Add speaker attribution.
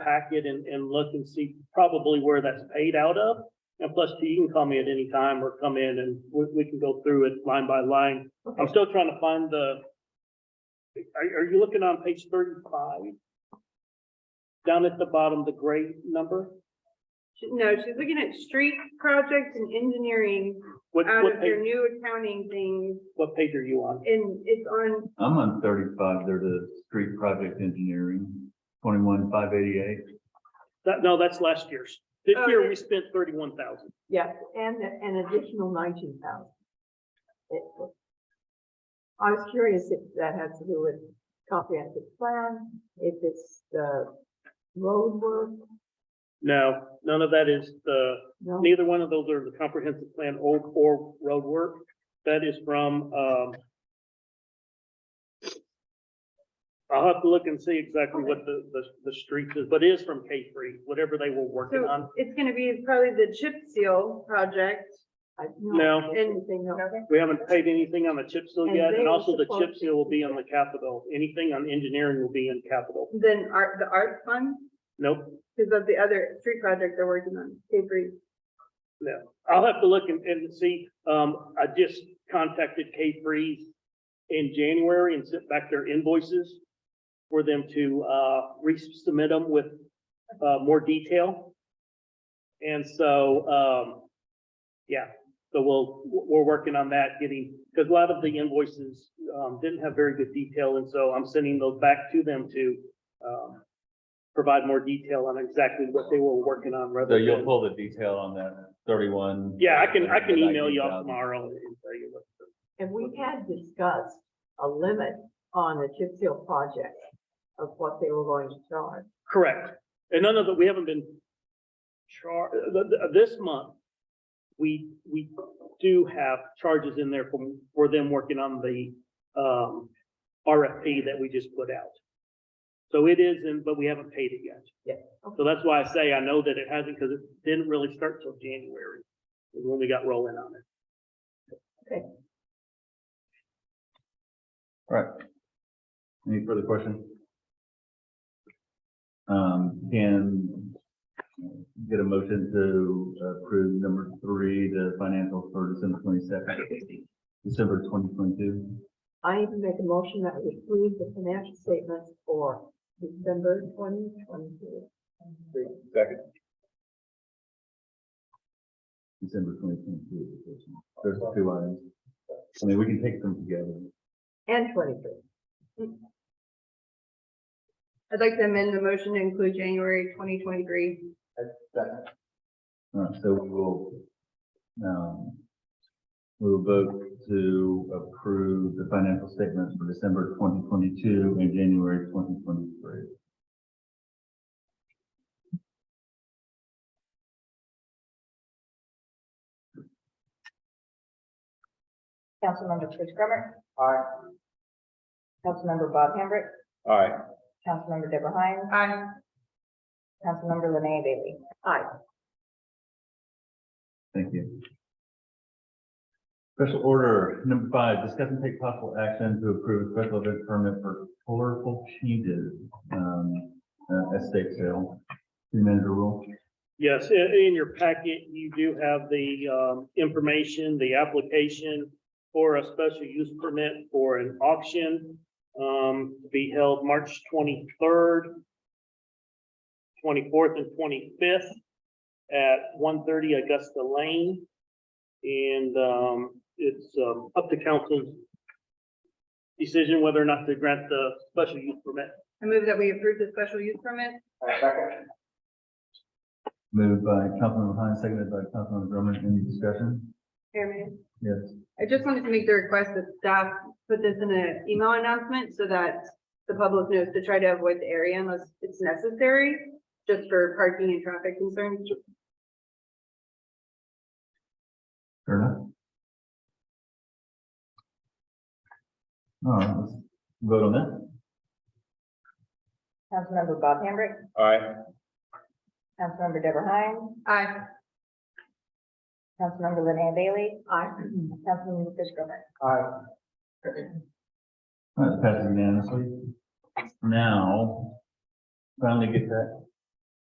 Speaker 1: packet and, and look and see probably where that's paid out of. And plus, T, you can call me at any time or come in and we, we can go through it line by line. I'm still trying to find the, are, are you looking on page thirty-five? Down at the bottom, the gray number?
Speaker 2: She- No, she's looking at street projects and engineering
Speaker 1: What,
Speaker 2: out
Speaker 1: what
Speaker 2: of your
Speaker 1: page,
Speaker 2: new accounting thing,
Speaker 1: what page are you on?
Speaker 2: and it's on,
Speaker 3: I'm on thirty-five, There's a street project engineering, twenty-one, five eighty-eight.
Speaker 1: That, no, that's last year's. This
Speaker 2: Oh,
Speaker 1: year,
Speaker 2: yeah.
Speaker 1: we spent thirty-one thousand.
Speaker 4: Yes, and an additional nineteen thousand. I was curious if that had to do with comprehensive plan, if it's the road work,
Speaker 1: No, none of that is the,
Speaker 4: no?
Speaker 1: neither one of those are the comprehensive plan or, or road work. That is from, um, I'll have to look and see exactly what the, the, the streets is, but it is from K three, whatever they were working on.
Speaker 2: so it's gonna be probably the chip seal project.
Speaker 4: I-
Speaker 1: No.
Speaker 4: Anything else?
Speaker 1: We haven't paid anything on the chip seal
Speaker 4: And
Speaker 1: yet,
Speaker 4: they
Speaker 1: and
Speaker 4: were
Speaker 1: also the chip
Speaker 4: supposed
Speaker 1: seal will be on the capital. Anything on engineering will be in capital.
Speaker 2: Then art, the art fund,
Speaker 1: Nope.
Speaker 2: because of the other street project they're working on, K three.
Speaker 1: I'll have to look and, and see. Um, I just contacted K three in January and sent back their invoices for them to, uh, resubmit them with, uh, more detail. And so, um, yeah, so we'll, we're working on that, getting, because a lot of the invoices, um, didn't have very good detail, and so I'm sending those back to them to, um, provide more detail on exactly what they were working on rather
Speaker 3: So
Speaker 1: than.
Speaker 3: you'll pull the detail on that thirty-one.
Speaker 1: Yeah, I can, I can email you all
Speaker 3: 19,000.
Speaker 1: tomorrow and tell you what.
Speaker 4: And we had discussed a limit on the chip seal project of what they were going to charge.
Speaker 1: Correct. And none of that, we haven't been char, th- th- this month, we, we do have charges in there from, for them working on the, um, RFP that we just put out. So it is, in but we haven't paid it yet.
Speaker 4: Yeah.
Speaker 1: So that's why I say I know that it hasn't, because it didn't really start till January, is when we got rolling on it.
Speaker 3: Right. Any further questions? Um, can get a motion to approve number three, the financials for December twenty-second, December twenty twenty-two.
Speaker 4: I need to make a motion that we approve the financial statements for December twenty twenty-two.
Speaker 3: Second. December twenty twenty-two. There's two items. I mean, we can take them together.
Speaker 4: And twenty-three.
Speaker 2: I'd like to amend the motion to include January twenty twenty-three.
Speaker 3: All right, so we will, um, we will vote to approve the financial statements for December twenty twenty-two and January twenty twenty-three.
Speaker 5: Councilmember Chris Grummer. Aye. Councilmember Bob Hambrick.
Speaker 3: Aye.
Speaker 5: Councilmember Deborah Hines.
Speaker 2: Aye.
Speaker 5: Councilmember Linnea Bailey.
Speaker 4: Aye.
Speaker 3: Thank you. Special order number five, discuss and take possible action to approve special event permit for colorful changes, um, uh, estate sale. City manager rule.
Speaker 1: Yes, i- in your packet, you do have the um, information, the application for a special use permit for an auction um, to be held March twenty-third, twenty-fourth, and twenty-fifth at one thirty Augusta Lane. And um, it's um, up to council's decision whether or not to grant the special use permit.
Speaker 2: I move that we approve the special use permit.
Speaker 3: Moved by Councilmember Hines, seconded by Councilmember Drummond. Any discussion?
Speaker 2: Chairman,
Speaker 3: Yes.
Speaker 2: I just wanted to make the request that staff put this in an email announcement so that the public knows to try to avoid the area unless it's necessary, just for parking and traffic concerns.
Speaker 3: Fair enough. All right, let's vote on that.
Speaker 5: Councilmember Bob Hambrick.
Speaker 3: Aye.
Speaker 5: Councilmember Deborah Hines.
Speaker 2: Aye.
Speaker 5: Councilmember Linnea Bailey.
Speaker 4: Aye.
Speaker 5: Councilmember Chris Grummer.
Speaker 3: All right, passes unanimously. Now, finally get that